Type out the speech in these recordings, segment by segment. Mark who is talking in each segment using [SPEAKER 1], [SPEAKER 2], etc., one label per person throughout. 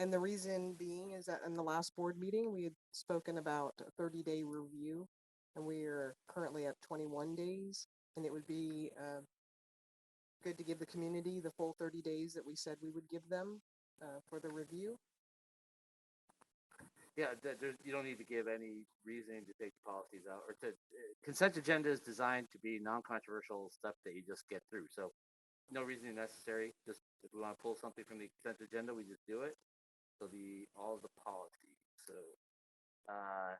[SPEAKER 1] And the reason being is that in the last board meeting, we had spoken about a thirty day review. And we are currently at twenty one days and it would be, uh, good to give the community the full thirty days that we said we would give them, uh, for the review.
[SPEAKER 2] Yeah, th- there's, you don't need to give any reasoning to take the policies out or to, uh, consent agenda is designed to be non-controversial stuff that you just get through. So no reasoning necessary. Just if we want to pull something from the consent agenda, we just do it. So the, all the policies, so, uh,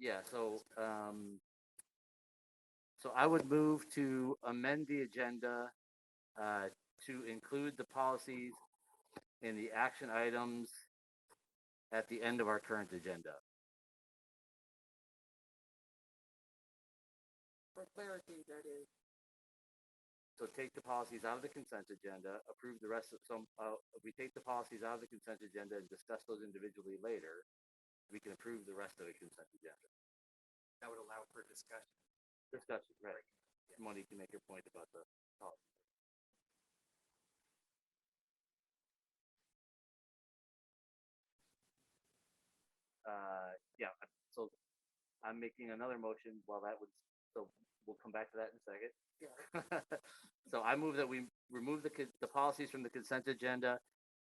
[SPEAKER 2] yeah, so, um, so I would move to amend the agenda, uh, to include the policies in the action items at the end of our current agenda.
[SPEAKER 1] For clarity, that is.
[SPEAKER 2] So take the policies out of the consent agenda, approve the rest of some, uh, if we take the policies out of the consent agenda and discuss those individually later, we can approve the rest of the consent agenda.
[SPEAKER 3] that would allow for discussion.
[SPEAKER 2] Discussion, right. Monique can make your point about the policy. Uh, yeah, I- so I'm making another motion while that would, so we'll come back to that in a second.
[SPEAKER 1] Yeah.
[SPEAKER 2] So I move that we remove the, con- the policies from the consent agenda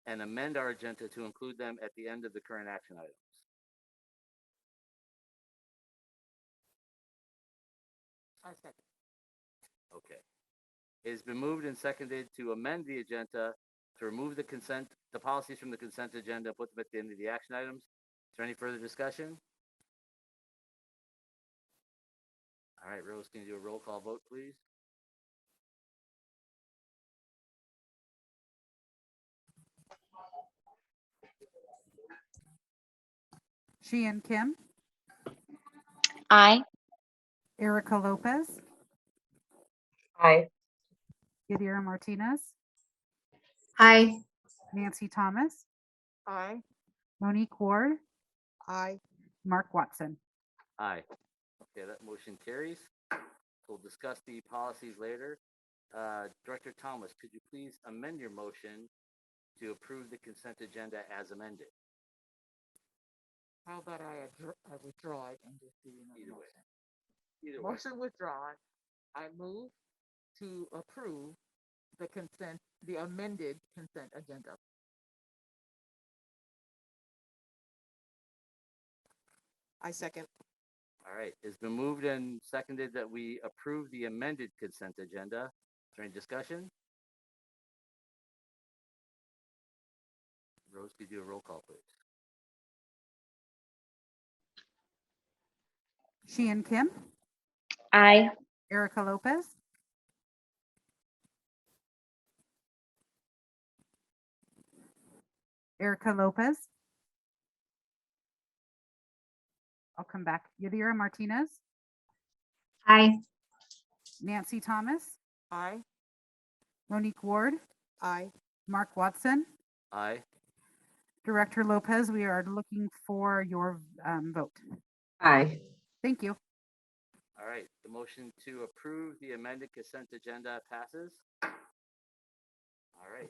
[SPEAKER 2] and amend our agenda to include them at the end of the current action items.
[SPEAKER 1] I second.
[SPEAKER 2] Okay. It's been moved and seconded to amend the agenda to remove the consent, the policies from the consent agenda, put them at the end of the action items. Is there any further discussion? All right, Rose, can you do a roll call vote, please?
[SPEAKER 4] Sheehan Kim,
[SPEAKER 5] Aye.
[SPEAKER 4] Erica Lopez,
[SPEAKER 5] Aye.
[SPEAKER 4] Yadira Martinez,
[SPEAKER 5] Aye.
[SPEAKER 4] Nancy Thomas,
[SPEAKER 1] Aye.
[SPEAKER 4] Monique Ward,
[SPEAKER 1] Aye.
[SPEAKER 4] Mark Watson.
[SPEAKER 2] Aye. Okay, that motion carries. We'll discuss the policies later. Uh, Director Thomas, could you please amend your motion to approve the consent agenda as amended?
[SPEAKER 6] How about I adr- I withdraw it and just do another
[SPEAKER 2] Either way.
[SPEAKER 6] motion?
[SPEAKER 2] Either way.
[SPEAKER 6] Motion withdrawn. I move to approve the consent, the amended consent agenda.
[SPEAKER 1] I second.
[SPEAKER 2] All right, it's been moved and seconded that we approve the amended consent agenda. Is there any discussion? Rose, could you do a roll call, please?
[SPEAKER 4] Sheehan Kim,
[SPEAKER 5] Aye.
[SPEAKER 4] Erica Lopez, Erica Lopez. I'll come back. Yadira Martinez,
[SPEAKER 5] Aye.
[SPEAKER 4] Nancy Thomas,
[SPEAKER 1] Aye.
[SPEAKER 4] Monique Ward,
[SPEAKER 1] Aye.
[SPEAKER 4] Mark Watson.
[SPEAKER 2] Aye.
[SPEAKER 4] Director Lopez, we are looking for your um, vote.
[SPEAKER 5] Aye.
[SPEAKER 4] Thank you.
[SPEAKER 2] All right, the motion to approve the amended consent agenda passes. All right,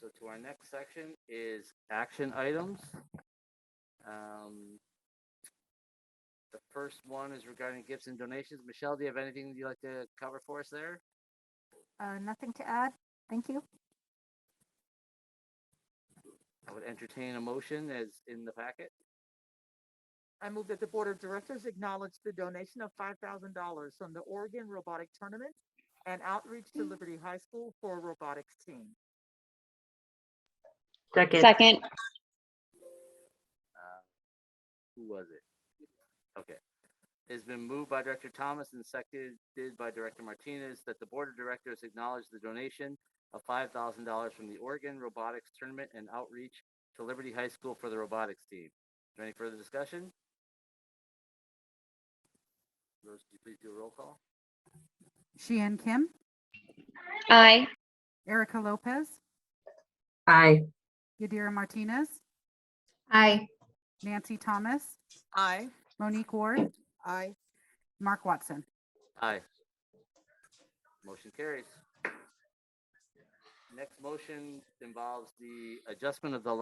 [SPEAKER 2] so to our next section is action items. Um, The first one is regarding gifts and donations. Michelle, do you have anything you'd like to cover for us there?
[SPEAKER 7] Uh, nothing to add. Thank you.
[SPEAKER 2] I would entertain a motion as in the packet.
[SPEAKER 6] I move that the Board of Directors acknowledge the donation of five thousand dollars from the Oregon Robotic Tournament and outreach to
[SPEAKER 1] Hmm.
[SPEAKER 6] Liberty High School for a robotics team.
[SPEAKER 5] Second.
[SPEAKER 7] Second.
[SPEAKER 2] Uh, Who was it? Okay. It's been moved by Director Thomas and seconded by Director Martinez that the Board of Directors acknowledge the donation of five thousand dollars from the Oregon Robotics Tournament and Outreach to Liberty High School for the robotics team. Is there any further discussion? Rose, could you please do a roll call?
[SPEAKER 4] Sheehan Kim,
[SPEAKER 5] Aye.
[SPEAKER 4] Erica Lopez,
[SPEAKER 5] Aye.
[SPEAKER 4] Yadira Martinez,
[SPEAKER 5] Aye.
[SPEAKER 4] Nancy Thomas,
[SPEAKER 1] Aye.
[SPEAKER 4] Monique Ward,
[SPEAKER 1] Aye.
[SPEAKER 4] Mark Watson.
[SPEAKER 2] Aye. Motion carries. next motion involves the adjustment of the